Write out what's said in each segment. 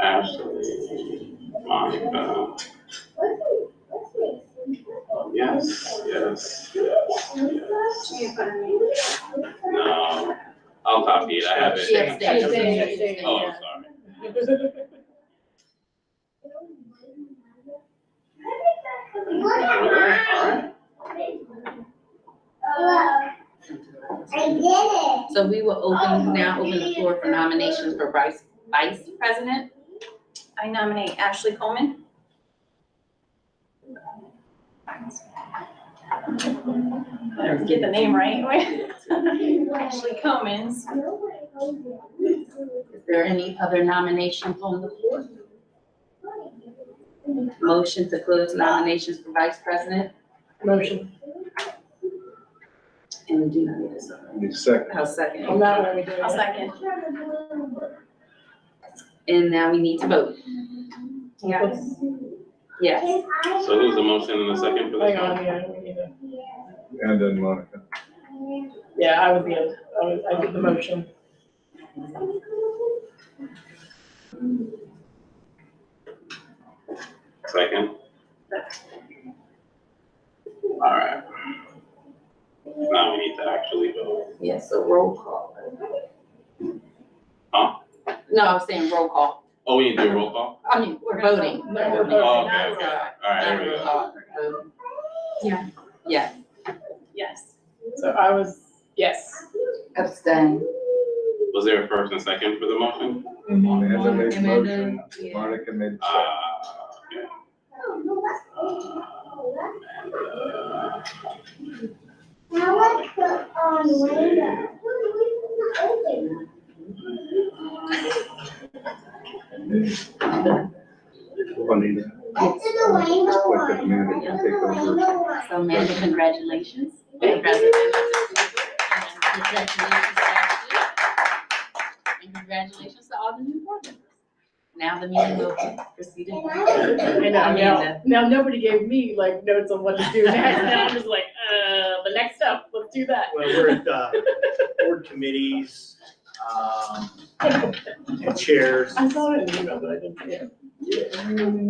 passed on, uh, yes, yes, yes, yes. No, I'll copy it, I have it. She abstained. She abstained. Oh, I'm sorry. Alright, alright, I did it. So we will open, now open the floor for nominations for vice, vice president. I nominate Ashley Coleman. Better Get the name right. Ashley Comans. Is there any other nominations on the floor? Motion to close nominations for vice president? Motion. And we do not need a second. Need a second. I'll second. I'm not really doing I'll it. second. And now we need to vote. Yes. Yes. so who's the motion in the second for this Hang one? on, yeah, we need to, And then Monica. yeah, I would be, a- I would, I did the motion. Second? Alright. Now we need to actually vote. Yes, so roll call. Huh? No, I was saying roll call. Oh, we need to do a roll call? I mean, we're voting. No, we're voting. Oh, okay, okay, alright, there we Not roll go. call, voting. Yeah. Yes. Yes. So I was, yes. Abstain. Was there a first and second for the motion? Amanda made the motion, Amanda, yeah. Monica made the second. Ah, okay. Uh, Now let's put on window. Juanita. Let's do the window one. Let the man that Let's can do take the over. window one. So Amanda, congratulations. Thank And Congratulations, Ashley. And congratulations to all the new board members. Now the meeting will proceed. in- I know, now, Amanda. now nobody gave me like notes on what to do next, and I'm just like, uh, the next step, let's do that. Well, we're at the board committees, um, and chairs. I saw it in the email, but I didn't see it.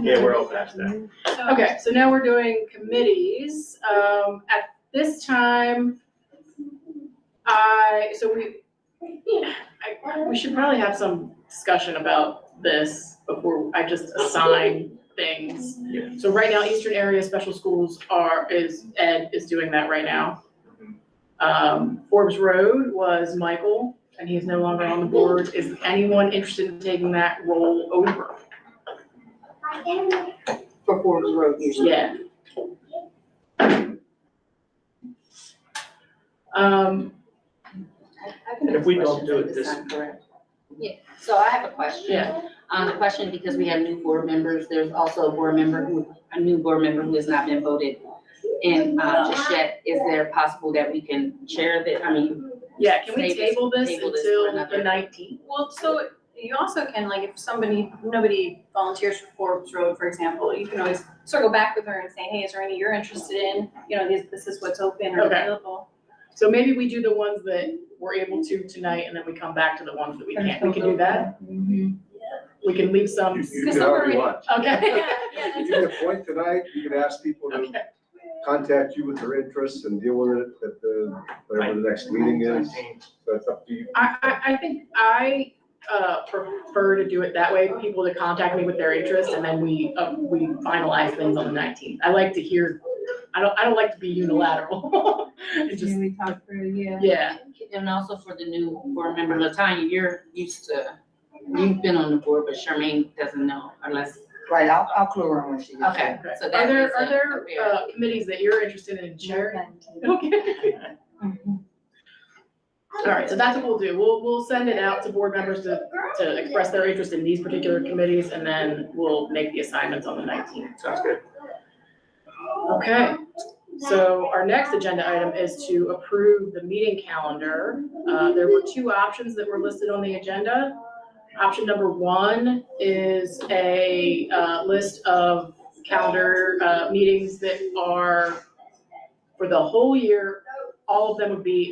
Yeah, we're all past that. Okay, so now we're doing committees. Um, at this time, I, so we, I, we should probably have some discussion about this before I just assign things. Yeah. So right now, Eastern Area Special Schools are, is, Ed is doing that right now. Um, Forbes Road was Michael, and he's no longer on the board. Is anyone interested in taking that role over? Performance road usually. Yeah. Um, If we don't do it this- Yeah, so I have a question. yeah, Um, the question, because we have new board members, there's also a board member who, a new board member who has not been voted in, uh, just yet. Is there possible that we can chair that, I mean, yeah, can we Table this- table this table this for until the another- nineteenth? Well, so you also can, like, if somebody, nobody volunteers for Forbes Road, for example, you can always circle back with her and say, hey, is there any you're interested in? You know, this, this is what's open or Okay. available. So maybe we do the ones that we're able to tonight, and then we come back to the ones that we can't, we can do that? We can leave some, You you Because can all somewhere- you want. okay, Yeah, yeah, You that's- can appoint tonight, you can ask people to okay, contact you with their interests and deal with it at the, whatever the next meeting is. So it's up to you. I, I, I think I, uh, prefer to do it that way, people to contact me with their interest, and then we, uh, we finalize things on the nineteenth. I like to hear, I don't, I don't like to be unilateral, It just, we talk through, yeah, And also for the new board member, Latanya, you're used to, you've been on the board, but Charmaine doesn't know unless, Right, I'll, I'll clue her when she gets okay, here. okay. so that Are is there, a- are there, a fair- uh, committees that you're interested in chairing? Okay. All right, so that's what we'll do. We'll, we'll send it out to board members to, to express their interest in these particular committees, and then we'll make the assignments on the nineteenth. Sounds good. Okay, so our next agenda item is to approve the meeting calendar. Uh, there were two options that were listed on the agenda. Option number one is a, uh, list of calendar, uh, meetings that are for the whole year. All of them would be